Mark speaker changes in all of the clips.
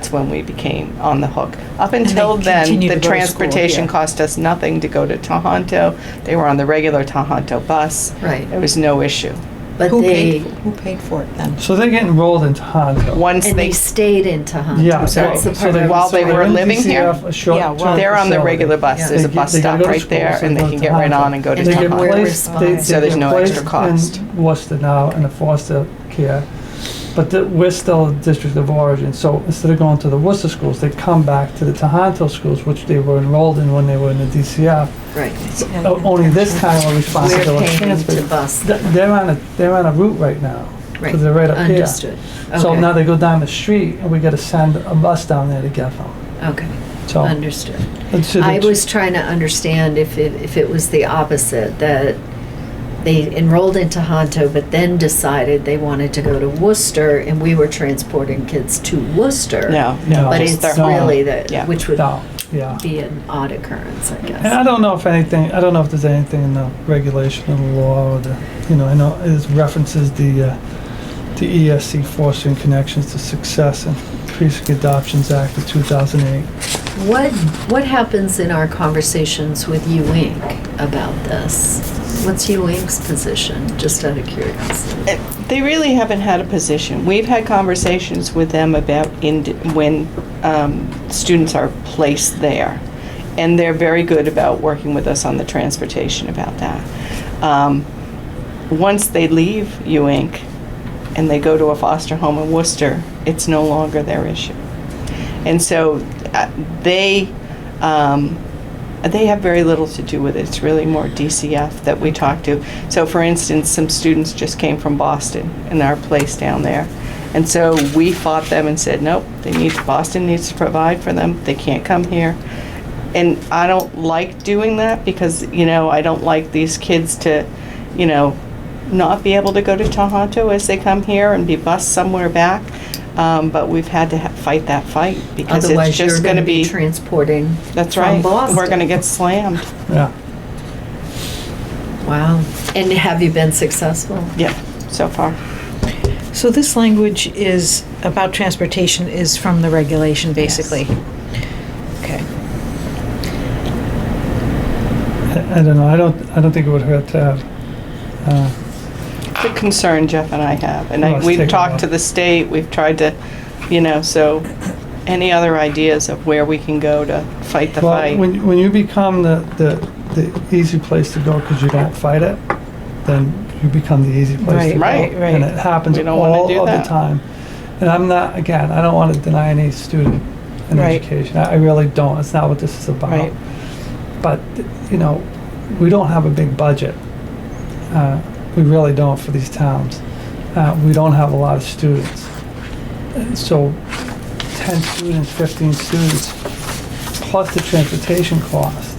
Speaker 1: that's when we became on the hook. Up until then,
Speaker 2: continue
Speaker 1: the
Speaker 2: to go to school,
Speaker 1: transportation
Speaker 2: yeah.
Speaker 1: cost us nothing to go to Tohonto. They were on the regular Tohonto bus.
Speaker 3: Right.
Speaker 1: There was no issue.
Speaker 3: But
Speaker 2: Who
Speaker 3: they,
Speaker 2: paid, who paid for it then?
Speaker 4: So they get enrolled in Tohoto.
Speaker 1: Once
Speaker 3: and
Speaker 1: they,
Speaker 3: they stayed in Tohoto.
Speaker 4: Yeah.
Speaker 3: So that's the
Speaker 4: right. So
Speaker 3: part I
Speaker 4: they-
Speaker 3: was-
Speaker 1: While they
Speaker 4: so they're
Speaker 1: were
Speaker 4: in
Speaker 1: living here,
Speaker 4: DCF, a short
Speaker 2: yeah, well,
Speaker 4: term
Speaker 1: they're on the
Speaker 4: facility.
Speaker 1: regular bus.
Speaker 2: Yeah.
Speaker 1: There's a
Speaker 4: They
Speaker 1: bus
Speaker 4: get- they gotta
Speaker 1: stop
Speaker 4: go to
Speaker 1: right
Speaker 4: school,
Speaker 1: there
Speaker 4: so
Speaker 1: and
Speaker 4: go
Speaker 1: they can
Speaker 4: to
Speaker 1: get right
Speaker 4: Tohoto.
Speaker 1: on and go to
Speaker 3: And
Speaker 4: They get
Speaker 3: Tohoto.
Speaker 1: Tohonto.
Speaker 4: placed, they-
Speaker 3: So
Speaker 4: they
Speaker 1: there's
Speaker 4: get
Speaker 1: no extra
Speaker 4: placed
Speaker 1: cost.
Speaker 4: in Worcester now in the foster care, but the- we're still a district of origin, so instead of going to the Worcester schools, they come back to the Tohoto schools, which they were enrolled in when they were in the DCF.
Speaker 3: Right.
Speaker 2: And-
Speaker 4: O- oh, Only this time a
Speaker 3: We're
Speaker 4: responsibility
Speaker 3: paying
Speaker 4: transfer.
Speaker 3: to bus.
Speaker 4: Th- They're on a, they're on a route right now,
Speaker 3: Right.
Speaker 4: because they're right up here.
Speaker 3: Understood.
Speaker 4: So
Speaker 3: Okay.
Speaker 4: now they go down the street, and we gotta send a bus down there to get them,
Speaker 3: Okay,
Speaker 4: so.
Speaker 3: understood.
Speaker 4: and so
Speaker 3: I
Speaker 4: the-
Speaker 3: was trying to understand if it, if it was the opposite, that they enrolled in Tohoto, but then decided they wanted to go to Worcester, and we were transporting kids to Worcester.
Speaker 1: No,
Speaker 4: No.
Speaker 1: no.
Speaker 3: But
Speaker 1: just
Speaker 3: it's
Speaker 1: their home.
Speaker 3: really
Speaker 1: Yeah.
Speaker 3: that, which would
Speaker 4: No, yeah.
Speaker 3: be an odd occurrence, I
Speaker 4: And I
Speaker 3: guess.
Speaker 4: don't know if anything, I don't know if there's anything in the regulation or the law or the, you know, I know it references the, uh, the ESC fostering connections to success and increasing adoptions act of two thousand eight.
Speaker 3: What, what happens in our conversations with U Inc. about this? What's U Inc.'s position, just out of curiosity?
Speaker 1: It- Uh, They really haven't had a position. We've had conversations with them about ind- when um, students are placed there, and they're very good about working with us on the transportation about that. Um, Once they leave U Inc. and they go to a foster home in Worcester, it's no longer their issue. And so uh, they, um, they have very little to do with it. It's really more DCF that we talk to. So, for instance, some students just came from Boston and our place down there. And so we fought them and said, nope, they need, Boston needs to provide for them. They can't come here. And I don't like doing that because, you know, I don't like these kids to, you know, not be able to go to Tohoto as they come here and be bused somewhere back. Um, but we've had to ha- fight that fight because it's
Speaker 3: Otherwise, you're
Speaker 1: just
Speaker 3: going to be
Speaker 1: be.
Speaker 3: transporting
Speaker 1: That's
Speaker 3: from
Speaker 1: right. We're
Speaker 3: Boston.
Speaker 1: going to get slammed.
Speaker 4: Yeah,
Speaker 3: Wow. And have you been successful?
Speaker 1: Yeah, so far.
Speaker 2: So this language is about transportation is from the regulation, basically? Okay.
Speaker 4: I, I don't know, I don't, I don't think it would hurt to have, uh,
Speaker 1: It's a concern Jeff and I have, and
Speaker 4: Well,
Speaker 1: I-
Speaker 4: it's
Speaker 1: we've
Speaker 4: taken a while.
Speaker 1: talked to the state, we've tried to, you know, so, any other ideas of where we can go to fight the
Speaker 4: well,
Speaker 1: fight?
Speaker 4: when, when you become the, the, the easy place to go because you don't fight it, then you become the easy place to
Speaker 2: Right,
Speaker 4: go.
Speaker 1: right,
Speaker 4: And
Speaker 2: right.
Speaker 4: it happens
Speaker 1: We don't wanna
Speaker 4: all
Speaker 1: do
Speaker 4: of the
Speaker 1: that.
Speaker 4: time. And I'm not, again, I don't want to deny any student an
Speaker 2: Right.
Speaker 4: education. I I really don't. It's not what this is about.
Speaker 2: Right.
Speaker 4: But, you know, we don't have a big budget. Uh, We really don't for these towns. Uh, We don't have a lot of students. And So 10 students, 15 students, plus the transportation cost.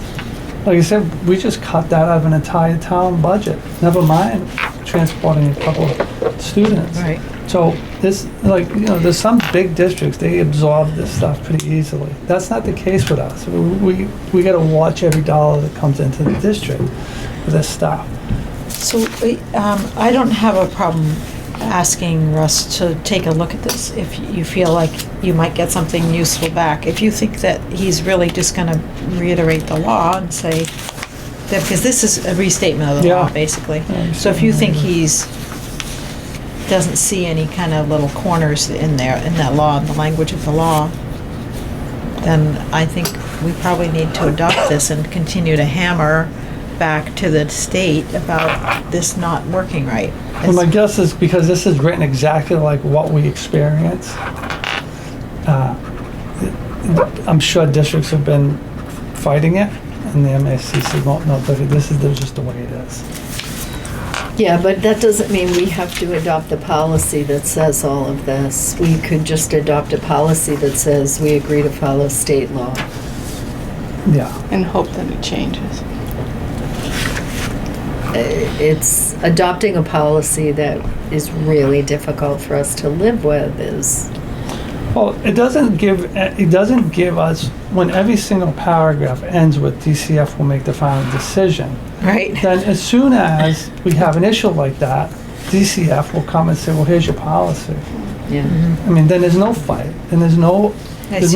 Speaker 4: Like I said, we just cut that out of an entire town budget, never mind transporting a couple of students.
Speaker 2: Right.
Speaker 4: So this, like, you know, there's some big districts, they absorb this stuff pretty easily. That's not the case with us. We, we gotta watch every dollar that comes into the district for this stuff.
Speaker 2: So um, I don't have a problem asking Russ to take a look at this if you feel like you might get something useful back. If you think that he's really just going to reiterate the law and say, that because this is a restatement of the
Speaker 4: Yeah.
Speaker 2: law, basically.
Speaker 4: Yeah,
Speaker 2: So if you think he's, doesn't see any kind of little corners in there, in that law, in the language of the law, then I think we probably need to adopt this and continue to hammer back to the state about this not working right.
Speaker 4: And my guess is because this is written exactly like what we experience, uh, I'm sure districts have been fighting it, and the MASC said, "Well, no, look, this is just the way it is."
Speaker 3: Yeah, but that doesn't mean we have to adopt a policy that says all of this. We could just adopt a policy that says we agree to follow state law.
Speaker 4: Yeah,
Speaker 1: And hope that it changes.
Speaker 3: Uh, It's adopting a policy that is really difficult for us to live with is,
Speaker 4: well, it doesn't give, it doesn't give us, when every single paragraph ends with DCF will make the final decision,
Speaker 2: Right?
Speaker 4: then as soon as we have an issue like that, DCF will come and say, well, here's your policy.
Speaker 3: yeah.
Speaker 4: I mean, then there's no fight, and there's no,
Speaker 2: I
Speaker 4: The
Speaker 2: see